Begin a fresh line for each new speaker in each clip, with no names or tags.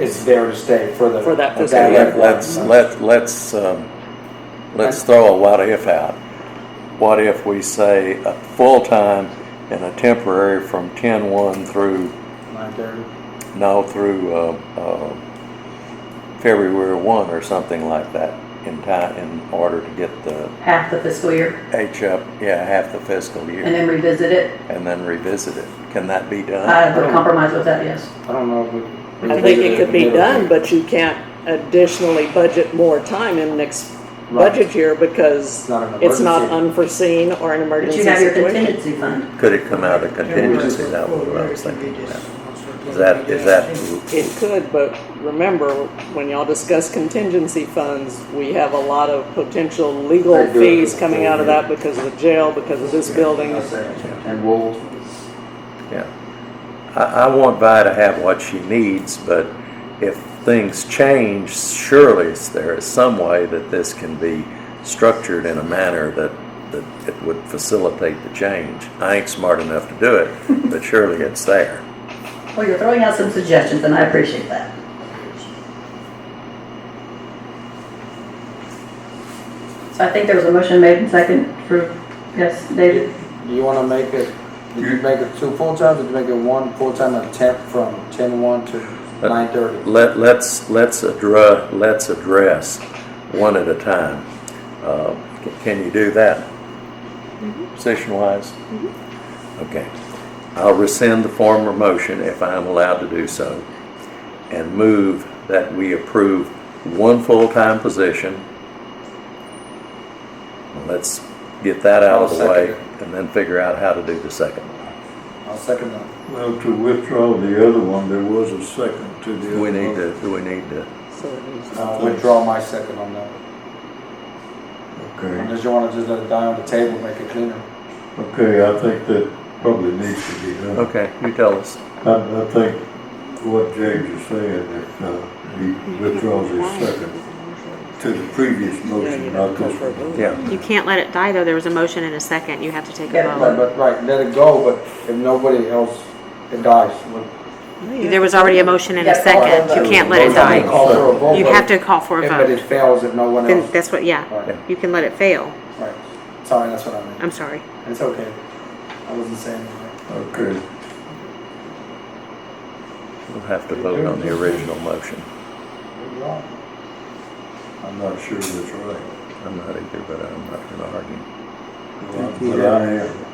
it's there to stay for the.
For that
the
fiscal
direct
year.
Let- Let's,
revenue.
let, let's, um, let's throw a what if out. What if we say a full-time and a temporary from ten-one through,
Nine thirty.
no, through, uh, uh, February one or something like that in time, in order to get the
half the fiscal year
H up, yeah, half the fiscal
and
year,
then revisit it.
and then revisit it. Can that be done?
I would compromise with that, yes.
I don't know if we.
I think it could be done, but you can't additionally budget more time in next
Right.
budget year because
It's not an
it's not
emergency.
unforeseen or an
But
emergency
you have your
situation.
contingency fund.
Could it come out of contingency? That was what I was thinking about. Is that, is that,
It could, but remember, when y'all discuss contingency funds, we have a lot of potential legal
They do it.
fees coming out of that because of the jail, because of this building.
And we'll,
yeah. I, I want Vi to have what she needs, but if things change, surely there is some way that this can be structured in a manner that, that it would facilitate the change. I ain't smart enough to do it, but surely it's there.
Well, you're throwing out some suggestions and I appreciate that. So I think there was a motion made and second for, yes, David?
do you wanna make it, did you make it two full times, or did you make it one full time and temp from ten one to
Uh,
nine thirty?
Let, let's, let's address, let's address one at a time. Uh, c- Can you do that? Position-wise? Okay. I'll rescind the former motion if I'm allowed to do so and move that we approve one full-time position. Let's get that out of the
I'll
way
second
and then figure out how to do the second.
I'll second that.
Well, to withdraw the other one, there was a second to the other.
We need
motion.
to, we need to,
So it needs to-
I'll withdraw my second on that.
Okay,
Unless you wanna just let it die on the table, make it cleaner.
okay, I think that probably needs to be done.
okay, you tell us.
I, I think what James is saying, if uh, he withdraws his second to the previous motion, not this one.
Yeah.
You can't let it die, though. There was a motion and a second. You have to take a
Yeah,
But,
vote.
but, right, let it go, but if nobody else, it dies.
There was already a motion and a
Yeah,
second. You can't let it die.
Call for a vote.
You have to call for a
If- But it
vote.
fails if no one
Then
else.
that's what, yeah.
Right,
You can let it fail.
right. Sorry, that's what I meant.
I'm sorry.
It's okay. I wasn't saying anything.
Okay,
We'll have to vote on the original motion.
I'm not sure that's right,
I'm not either, but I'm not gonna argue.
but I am.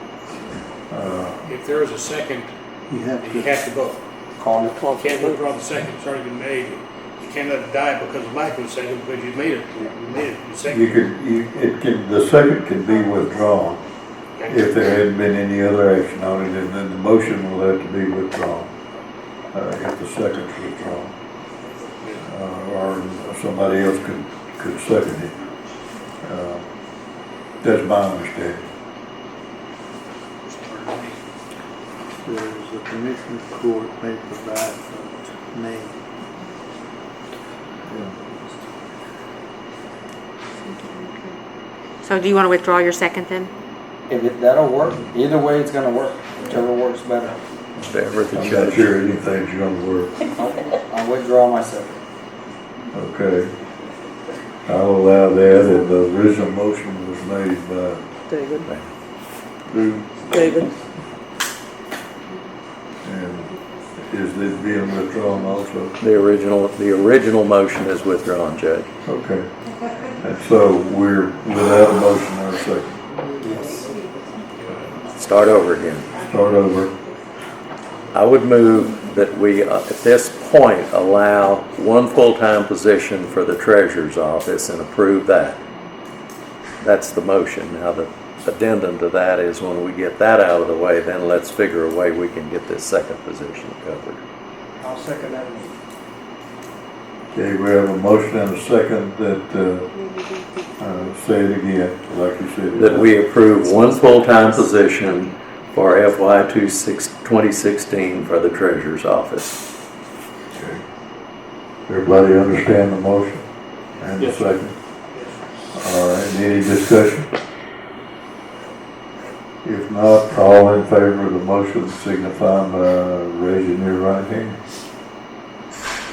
Uh,
If there is a second,
You have
you have to vote.
Call it.
Call
You
for
can't
vote.
withdraw the second, it's already been made. You can't let it die because of lack of a second, because you made it, you made it, you
You
seconded.
could, you, it can, the second can be withdrawn if there hadn't been any other action on it, and then the motion will have to be withdrawn, uh, if the second's withdrawn. Uh, or somebody else could, could second it. Uh, That's my understanding.
There's the commissioner's court may provide for name.
So do you want to withdraw your second then?
If it, that'll work, either way, it's gonna work, whichever works better.
Whatever the
I'm not
judge.
sure anything's gonna work.
I withdraw my second.
Okay. I'll allow that, and the original motion was made by
David,
Drew,
David,
and is it being withdrawn also?
The original, the original motion is withdrawn, Judge.
Okay. And so we're without a motion or a second.
Start over again.
Start over.
I would move that we, uh, at this point, allow one full-time position for the treasurer's office and approve that. That's the motion. Now, the addendum to that is when we get that out of the way, then let's figure a way we can get this second position covered.
I'll second that.
Okay, we have a motion and a second that, uh, uh, say it again, like you said.
that we approve one full-time position for FY 26 2016 for the treasurer's office.
Okay. Everybody understand the motion and the
Yes.
second? All right, any discussion? If not, all in favor of the motion signify by raising your right hand.